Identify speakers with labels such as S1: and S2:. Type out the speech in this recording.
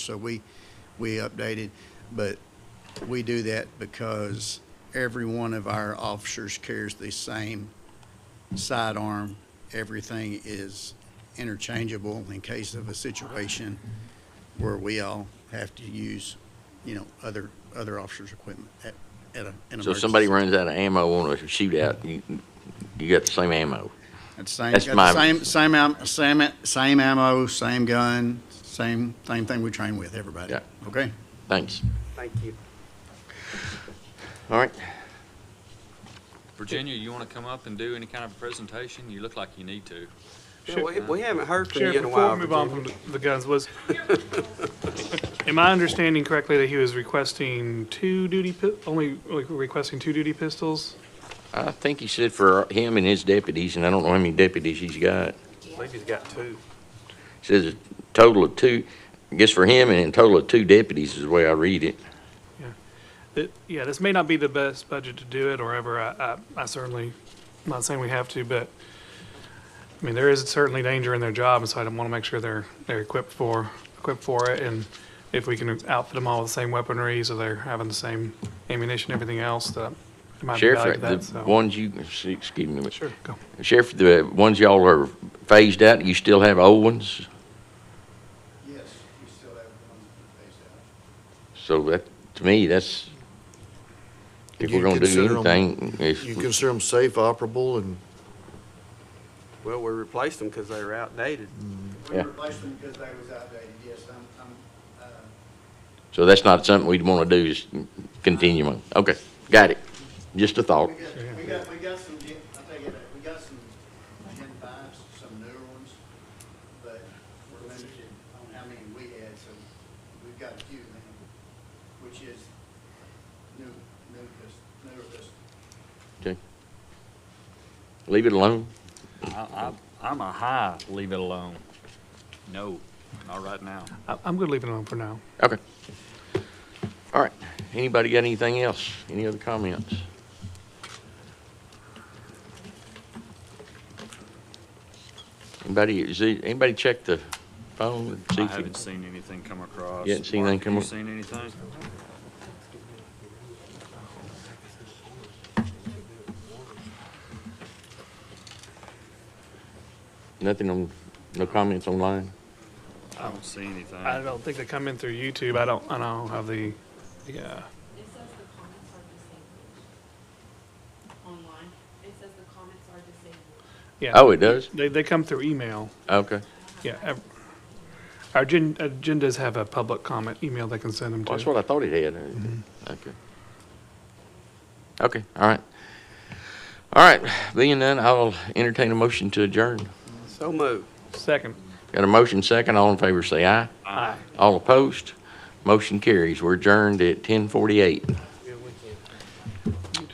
S1: So we, we updated, but we do that because every one of our officers carries the same sidearm. Everything is interchangeable in case of a situation where we all have to use, you know, other, other officers' equipment at, at a, an emergency.
S2: So if somebody runs out of ammo on a shootout, you, you got the same ammo.
S1: It's same,
S2: that's
S1: got the
S2: my-
S1: same, same, am- same, same ammo, same gun, same, same thing we train with, everybody.
S2: Yeah.
S1: Okay?
S2: Thanks.
S3: Thank you.
S2: All right.
S4: Virginia, you want to come up and do any kind of a presentation? You look like you need to.
S3: Yeah, we, we haven't heard from you
S5: Sheriff,
S3: in a
S5: before
S3: while.
S5: we move on from
S3: Virginia.
S5: the the guns, was, am I understanding correctly that he was requesting two duty, pi- only like, requesting two duty pistols?
S2: I think he said for him and his deputies, and I don't know how many deputies he's got.
S5: I believe he's got two.
S2: Says a total of two, I guess for him and a total of two deputies is the way I read it.
S5: It- Yeah, this may not be the best budget to do it or ever. I, I I certainly, I'm not saying we have to, but, I mean, there is certainly danger in their job, and so I want to make sure they're, they're equipped for, equipped for it. And if we can outfit them all with the same weaponry, so they're having the same ammunition, everything else, that it might be value to
S2: Sheriff,
S5: that,
S2: the
S5: so.
S2: ones you, excuse me,
S5: Sure, go.
S2: Sheriff, the ones y'all are phased out, you still have old ones?
S1: Yes, you still have one
S2: So that, to me, that's, if
S6: You
S2: we're gonna
S6: consider
S2: do
S6: 'em-
S2: anything, if,
S6: You consider them safe, operable, and
S3: Well, we replaced them because they were outdated.
S2: We Yeah.
S1: replaced them because they was outdated, yes, I'm, I'm, uh,
S2: so that's not something we'd wanna do, is continue on. Okay, got it. Just a thought.
S1: We got, we got, we got some, gen- I'll tell you that, we got some Gen fives, some newer ones, but we're limited on how many we had, so we've got a few now, which is new, new, pist- newer pistol.
S2: Okay. Leave it alone.
S4: I, I, I'm a high, leave it alone. No, not right now.
S5: I- I'm good leaving it alone for now.
S2: Okay. All right. Anybody got anything else? Any other comments? Anybody, is there, anybody check the phone? and see
S4: I
S2: if
S4: haven't
S2: it-
S4: seen anything come across.
S2: You haven't seen anything
S4: Mark,
S2: come
S4: have
S2: up?
S4: you seen anything?
S2: Nothing on, no comments online?
S4: I don't see anything.
S5: I don't think they come in through YouTube. I don't, I don't have the, uh, yeah.
S7: It says the comments are disabled. Online, it says the comments are disabled.
S5: yeah.
S2: Oh, it does?
S5: They, they come through email.
S2: Okay.
S5: Yeah. ev- Our agen- agendas have a public comment email they can send them
S2: Well, That's
S5: to.
S2: what I thought it had. Okay. Okay, all right. All right, being none, I'll entertain a motion to adjourn.
S3: So moved.
S5: Second.
S2: Got a motion second, all in favor say aye.
S5: Aye.
S2: All opposed? Motion carries. We're adjourned at ten forty-eight.